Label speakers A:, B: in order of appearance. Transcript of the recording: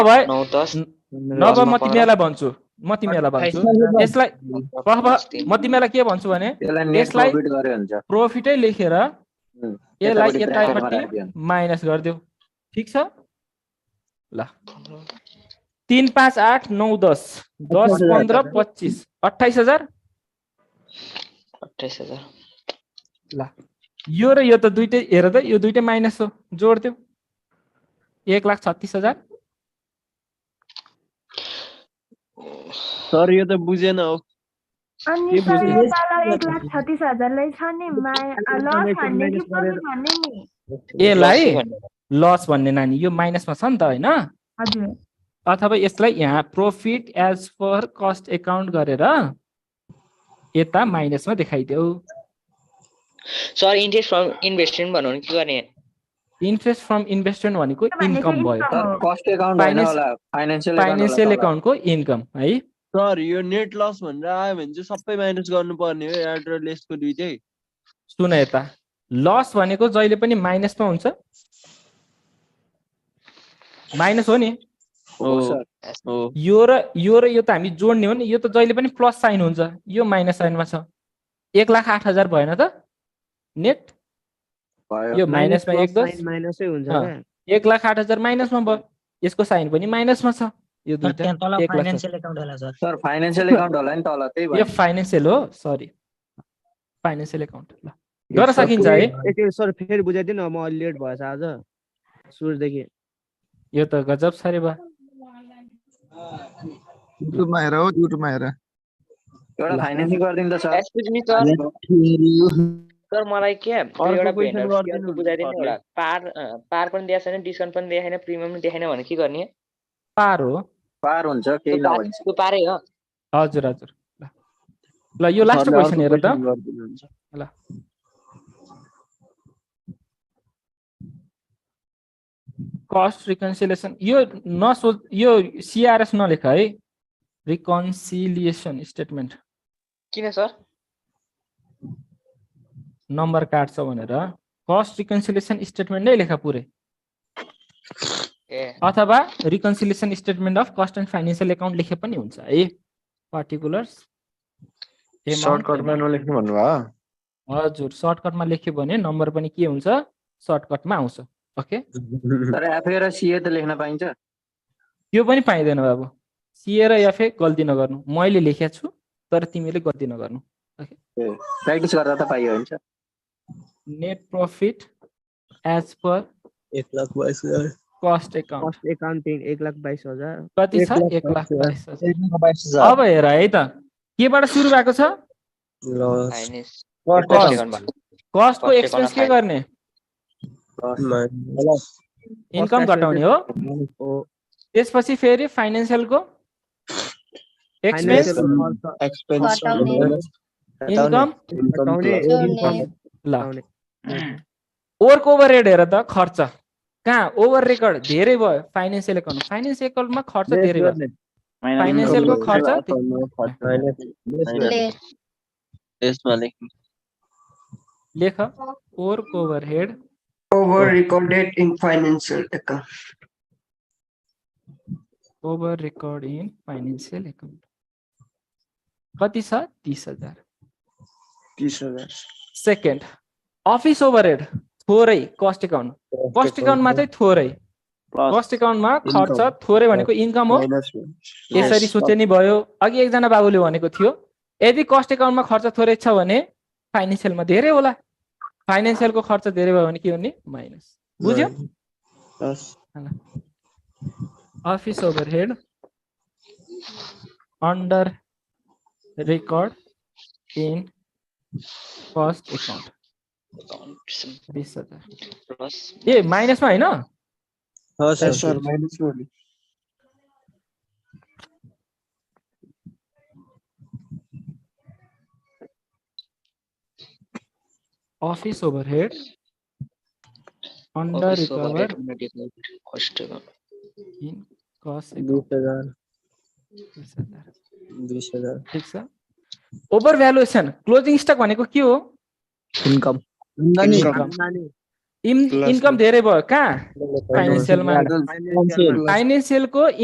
A: भए
B: नौ दस
A: नभए म तिमीहरूलाई भन्छु म तिमीहरूलाई भन्छु यसलाई प्रभ- म तिमीलाई के भन्छु भने
C: त्यसलाई नेट
A: यसलाई-
C: प्रॉफिट गरे हुन्छ
A: प्रोफिटै लेखेर
C: हुँ,
A: यसलाई
C: यतापट्टि
A: यतापट्टि
C: bracket मा राखिदियो।
A: माइनस गरिदेऊ ठिक छ तिन पाँच आठ नौ दस दस पन्ध्र पच्चिस अठाइस हजार
B: अठाइस हजार
A: यो र यो त दुइटै हेर त यो दुइटै माइनस हो जोडिदेऊ एक लाख छत्तिस हजार
D: सर यो त बुझेन हो
E: अनि
D: के
E: सर
D: बुझ्ने?
E: यो तल एक लाख छत्तिस हजारलाई छ नि माया लस भन्ने कि प्रफिट भन्ने नि
A: यसलाई
B: दसै भन्ने।
A: लस भन्ने नानी यो माइनसमा छ नि त होइन
E: हजुर
A: अथवा यसलाई यहाँ profit as per cost account गरेर यता माइनसमा देखाइदेऊ
B: सर इन्ट्रेस्ट फ्रम इन्भेस्टमेन्ट भनौँ भने के गर्ने
A: इन्ट्रेस्ट फ्रम इन्भेस्टमेन्ट भनेको
E: त्यो भनेको
A: इन्कम भयो
E: income हो।
C: कस्ट एकाउन्ट होइन
A: Finance-
C: होला फाइनेन्सियल
A: फाइनेन्सियल एकाउन्टको इन्कम है
D: सर यो नेट लस भनेर आयो भने चाहिँ सबै माइनस गर्नुपर्ने हो एड र लेसको दुइटै
A: सुन यता लस भनेको जहिले पनि माइनसमा हुन्छ माइनस हो नि
D: हो
C: सर।
D: हो
A: यो र यो र यो त हामी जोड्ने हो नि यो त जहिले पनि प्लस साइन हुन्छ यो माइनस साइनमा छ एक लाख आठ हजार भएन त नेट
C: भयो
A: यो माइनसमा एक दस
F: माइनसै हुन्छ
A: अँ,
F: क्या?
A: एक लाख आठ हजार माइनसमा भयो यसको साइन पनि माइनसमा छ यो
G: सर
A: दुइटा
G: त्यहाँ तल
A: एक लाख छ।
G: फाइनेन्सियल एकाउन्ट होला सर
C: सर फाइनेन्सियल एकाउन्ट होला नि तल त्यही
A: यो
C: भयो
A: फाइनेन्सियल हो सरी फाइनेन्सियल एकाउन्ट ल गर्न सकिन्छ है
F: एकैछिन सर फेरि बुझाइदिनु न, म अलि लेट भएछ आज सुरुदेखि
A: यो त गजब साह्रै भयो
H: युट्युबमा हेर हो युट्युबमा हेर
C: एउटा फाइनेन्सिङ गरिदिनु त sir
B: Excuse me, sir sir मलाई के त्यो एउटा
D: अर्को question
B: भेन्डर
D: गरिदिनु
B: सेयरको बुझाइदिनु होला पार अँ, पार पनि दिएको छैन डिस्काउन्ट पनि दिएको छैन प्रिमियम पनि दिएको छैन भने के गर्ने
A: पार हो
C: पार हुन्छ
B: त्यो
C: केही
B: पार-
C: नभन्छ
B: त्यो पारै हो
A: हजुर हजुर ल ल यो लास्ट
D: सरले
A: क्वेसन
D: अर्को
A: हेर त
D: question गरिदिनुहुन्छ।
A: कस्ट रिकन्सिलेसन यो नसो यो सिआरएस नलेख है रिकन्सिलिएसन स्टेटमेन्ट
B: किन सर
A: नम्बर काट्छ भनेर कस्ट रिकन्सिलेसन स्टेटमेन्ट नै लेख पुरै
B: ए
A: अथवा reconciliation statement of cost and financial account लेखे पनि हुन्छ है पर्टिकुलर्स
I: सर्टकटमा नलेख्नु भन्नुभयो
A: हजुर सर्टकटमा लेख्यो भने नम्बर पनि के हुन्छ सर्टकटमा आउँछ ओके
C: तर एफए र सिए त लेख्न पाइन्छ
A: त्यो पनि पाइँदैन बाबु सिए र एफए गल्ती नगर्नु मैले लेखेको छु तर तिमीले गल्ती नगर्नु
C: प्र्याक्टिस गर्दा त पाइयो हुन्छ
A: नेट प्रफिट एज पर
D: एक लाख बाइस हजार
A: कस्ट एकाउन्ट
F: फर्स्ट एकाउन्टिङ एक लाख बाइस हजार
A: कति छ
H: एक लाख
A: एक लाख
H: बाइस
A: बाइस हजार। अब हेर है त केबाट सुरु भएको छ
B: फाइनेन्स
A: Cost।
B: एकाउन्टबाट।
A: कस्टको
B: Cost
A: एक्सपेन्स
B: account
A: के गर्ने इन्कम
F: account
A: घटाउने हो
F: हो
A: त्यसपछि फेरि फाइनेन्सियलको एक्सपेन्स
F: फाइनेन्सियल खर्च
E: घटाउने
A: इन्कम
F: घटाउने
E: जोड्ने
A: ल
F: घटाउने।
A: ओभरको ओभर रेड हेर त खर्च कहाँ ओभर रेकर्ड धेरै भयो फाइनेन्सियल एकाउन्ट फाइनेन्सियल एकाउन्टमा खर्च धेरै भयो फाइनेन्सियलको खर्च
D: यसमा लेख्नु
A: लेख ओभरको over head
J: over recorded in financial account.
A: Over record in financial account कति छ तिस हजार
J: These are the-
A: second office overhead थोरै कस्ट एकाउन्ट कस्ट एकाउन्टमा चाहिँ थोरै कस्ट एकाउन्टमा खर्च थोरै भनेको इन्कम हो यसरी सोचे नि भयो अघि एकजना बाबुले भनेको थियो यदि कस्ट एकाउन्टमा खर्च थोरै छ भने फाइनेन्सियलमा धेरै होला फाइनेन्सियलको खर्च धेरै भयो भने के हुने माइनस बुझ्यो office overhead under record in first account
B: Accounts
A: बिस हजार
B: plus
A: ए माइनसमा होइन office overhead under
B: office
A: recover
B: overhead under developed cost account.
A: In cost account ठिक छ ओभर भ्यालुएसन क्लोजिङ स्टक भनेको के हो
H: हुन्छ नि
A: Income। इन
I: Plus
A: इन्कम धेरै भयो कहाँ
I: फाइनेन्सियल
A: फाइनेन्सियलमा फाइनेन्सियलको